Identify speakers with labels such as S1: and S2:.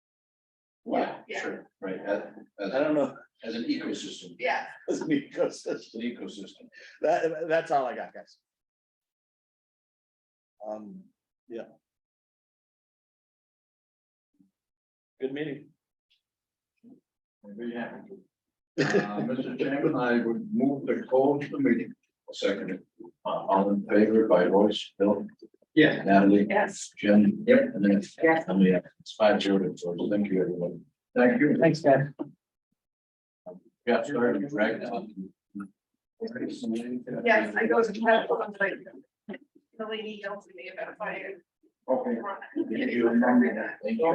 S1: Right,
S2: Yeah.
S1: sure, right, as,
S3: I
S1: as,
S3: don't know,
S1: as an ecosystem,
S2: Yeah,
S3: it's because
S1: it's an ecosystem.
S3: that, that's all I got, guys. Um, yeah. Good meeting.
S1: Very happy to. Uh, Mr. Chairman, I would move to close the meeting. Second, uh, all in favor by voice, Bill? Yeah. Natalie?
S2: yes.
S1: Jen? Yep. And then it's,
S2: Yes.
S1: and we have five children, so thank you, everyone. Thank you.
S3: Thanks, guys.
S1: Got started, dragged on.
S2: Yes, I go to Capital and like. The lady yells at me about fire.
S1: Okay.
S2: Run.
S1: Thank you. Thank you.